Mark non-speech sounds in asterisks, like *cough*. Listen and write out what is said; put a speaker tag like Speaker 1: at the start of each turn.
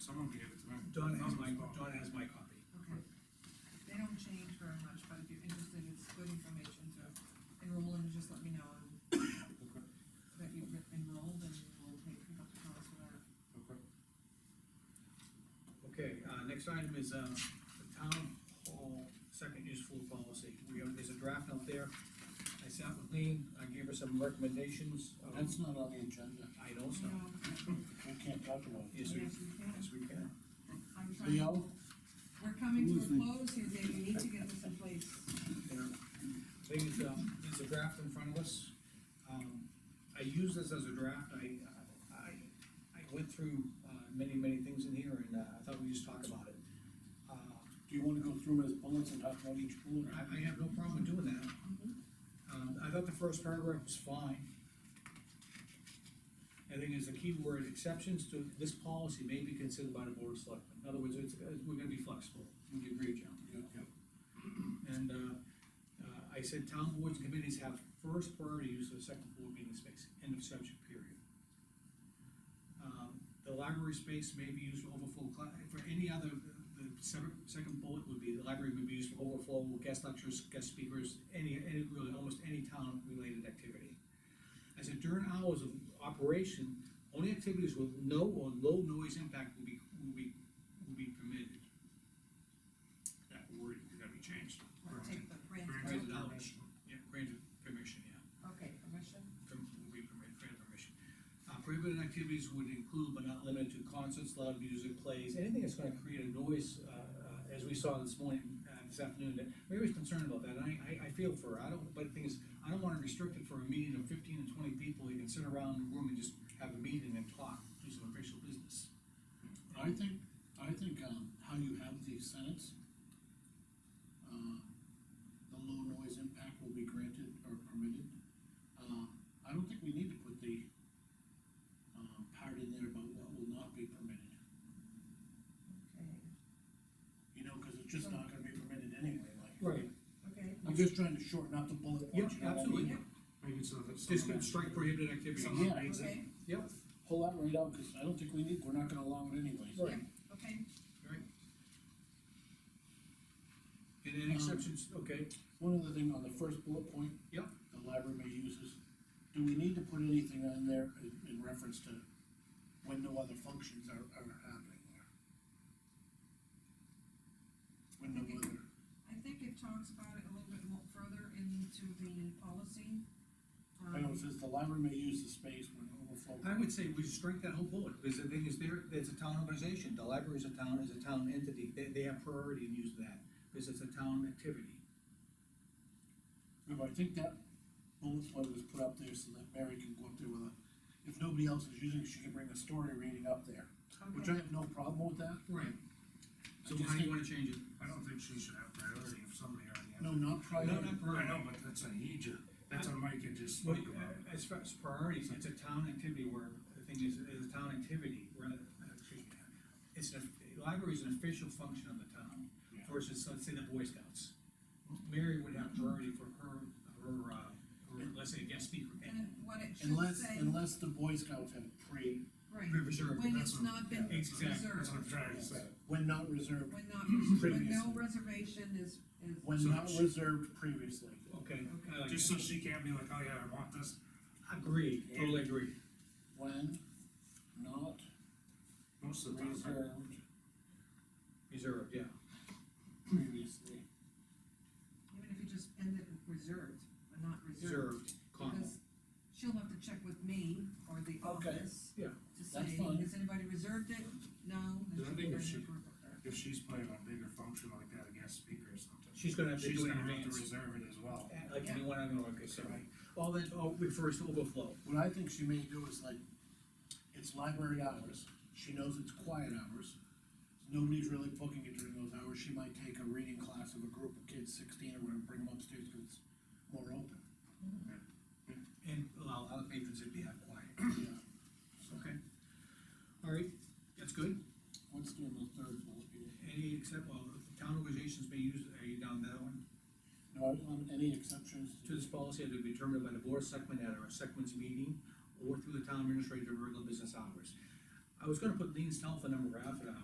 Speaker 1: Don gave it to him.
Speaker 2: Don has my,
Speaker 1: Don's
Speaker 2: Don has my copy.
Speaker 3: Okay. They don't change very much, but if you're interested, it's good information to enroll in, just let me know and
Speaker 1: Okay,
Speaker 3: that you've enrolled and we'll take, pick up the cost for that.
Speaker 1: okay.
Speaker 2: Okay, uh, next item is, uh, the town hall second useful policy. We have, there's a draft out there. I sat with Lean, I gave her some recommendations. um,
Speaker 4: That's not on the agenda,
Speaker 2: I know so.
Speaker 3: No, okay.
Speaker 4: we can't talk about it.
Speaker 2: Yes, we,
Speaker 3: Yes, we can.
Speaker 2: yes, we can.
Speaker 3: I'm trying,
Speaker 4: Leo,
Speaker 3: we're coming to a
Speaker 4: Listen.
Speaker 3: close here, Dave, we need to get this in place.
Speaker 2: there. Thing is, um, there's a draft in front of us. Um, I use this as a draft, I, I, I went through, uh, many, many things in here, and, uh, I thought we just talk about it. Uh,
Speaker 4: do you wanna go through them as bullets and talk about each bullet?
Speaker 2: I, I have no problem doing that. Um, I thought the first paragraph was fine. I think there's a key word, exceptions to this policy may be considered by the board of selectmen, in other words, it's, uh, we're gonna be flexible, would you agree, John?
Speaker 4: Yeah.
Speaker 2: And, uh, uh, I said town boards and committees have first priority use of second floor meeting space, end of subject period. Um, The library space may be used for overflow, cla- for any other, the sever- second bullet would be, the library would be used for overflow, guest lectures, guest speakers, any, any, really, almost any town-related activity. I said during hours of operation, only activities with no or low noise impact will be, will be, will be permitted. That word is gonna be changed.
Speaker 3: We'll take the grant.
Speaker 2: Granted knowledge, yeah, granted permission, yeah,
Speaker 3: Okay, permission?
Speaker 2: Perm- will be permitted, granted permission. Uh, prohibited activities would include but not limited to concerts, loud music, plays, anything that's gonna create a noise, uh, uh, as we saw this morning, uh, this afternoon, that Mary's concerned about that, and I, I, I feel for her, I don't, but the thing is, I don't wanna restrict it for a meeting of fifteen to twenty people, you can sit around in the room and just have a meeting and talk, do some official business.
Speaker 4: I think, I think, um, how you have the sentence, uh, the low noise impact will be granted or permitted. Uh, I don't think we need to put the, um, part in there about what will not be permitted,
Speaker 3: Okay,
Speaker 4: you know, cause it's just not gonna be permitted anyway, like.
Speaker 2: Right.
Speaker 3: okay.
Speaker 4: I'm just trying to shorten up the bullet points.
Speaker 2: Yeah,
Speaker 4: you know what I
Speaker 2: absolutely.
Speaker 4: mean?
Speaker 1: Make it so that.
Speaker 2: Just
Speaker 1: someone-
Speaker 2: strike prohibited activities.
Speaker 1: Someone-
Speaker 4: Yeah, exactly.
Speaker 3: Okay,
Speaker 2: Yep,
Speaker 4: pull that right out, cause I don't think we need, we're not gonna allow it anyways.
Speaker 2: right.
Speaker 3: okay,
Speaker 2: And then exceptions, okay,
Speaker 4: One other thing on the first bullet point.
Speaker 2: Yep.
Speaker 4: The library may uses, do we need to put anything on there in, in reference to when no other functions are, are happening there? When no other,
Speaker 3: I think it talks about it a little bit more further into the policy.
Speaker 4: I
Speaker 3: Um,
Speaker 4: know it says the library may use the space when overflow.
Speaker 2: I would say we strike that whole bullet, because the thing is, there, it's a town organization, the library is a town, is a town entity, they, they have priority in use of that, because it's a town activity.
Speaker 4: Remember, I think that bullet point was put up there so that Mary can go up there with a, if nobody else is using it, she can bring a story reading up there, which I
Speaker 3: Okay,
Speaker 4: have no problem with that.
Speaker 2: Right. So how do
Speaker 4: I just
Speaker 2: you
Speaker 4: think-
Speaker 2: wanna change it?
Speaker 1: I don't think she should have priority if somebody already has.
Speaker 4: No, not prior.
Speaker 2: No, not
Speaker 1: I
Speaker 2: priority.
Speaker 1: know, but that's a he, ju- that's a Mike had just
Speaker 2: Well,
Speaker 1: spoke about.
Speaker 2: uh, as far as priorities, it's a town activity where, the thing is, it's a town activity, where, uh, excuse me, it's a, the library is an official function of the town,
Speaker 4: Yeah.
Speaker 2: versus, let's say, the Boy Scouts. Mary would have priority for her, her, uh, her, let's say, guest speaker.
Speaker 3: and what it should
Speaker 4: Unless,
Speaker 3: say,
Speaker 4: unless the Boy Scouts have pre,
Speaker 3: right,
Speaker 2: Sure.
Speaker 3: when
Speaker 1: That's
Speaker 3: it's
Speaker 1: what-
Speaker 3: not been
Speaker 2: yeah, exactly.
Speaker 1: That's what I'm
Speaker 3: reserved,
Speaker 1: trying to say.
Speaker 4: when not reserved,
Speaker 3: when not, when no
Speaker 4: Previously.
Speaker 3: reservation is, is,
Speaker 4: when
Speaker 1: So
Speaker 4: not
Speaker 1: she-
Speaker 4: reserved previously.
Speaker 2: Okay, I like
Speaker 1: Just so
Speaker 2: that.
Speaker 1: she can't be like, oh yeah, I want this,
Speaker 2: Agreed, totally agree.
Speaker 4: When not
Speaker 1: most of the time. I-
Speaker 4: reserved
Speaker 2: Reserved, yeah.
Speaker 4: previously.
Speaker 3: even if you just end it with reserved, but not reserved.
Speaker 2: Reserved, comma.
Speaker 3: Because she'll have to check with me or the
Speaker 4: Okay,
Speaker 3: office.
Speaker 2: yeah,
Speaker 3: To say,
Speaker 4: that's fine.
Speaker 3: has anybody reserved it? No. then
Speaker 1: I think
Speaker 3: she'll
Speaker 1: it
Speaker 3: bring
Speaker 1: should-
Speaker 3: it for-
Speaker 1: If she's playing a bigger function like that, a guest speaker or something,
Speaker 2: She's gonna have to
Speaker 1: she's
Speaker 2: do it in
Speaker 1: gonna have to
Speaker 2: advance. Uh,
Speaker 1: reserve it as well.
Speaker 2: Like
Speaker 3: Yeah.
Speaker 2: anyone on the
Speaker 4: Right.
Speaker 2: organization. All that, all refers to overflow.
Speaker 4: What I think she may do is like, it's library hours, she knows it's quiet hours. Nobody's really booking it during those hours, she might take a reading class of a group of kids, sixteen or whatever, bring them upstairs, cause it's more open. *clears throat*
Speaker 2: And allow other patrons to be out quiet.
Speaker 4: Yeah. So,
Speaker 2: Okay. All right, that's good.
Speaker 4: What's doing the third bullet, Peter?
Speaker 2: Any except, well, the town organizations may use, are you down that one?
Speaker 4: No, on any exceptions
Speaker 2: To this policy, it'll be determined by the board of selectmen at our selectmen's meeting or through the town administrator during regular business hours. I was gonna put Lean's telephone number out for that,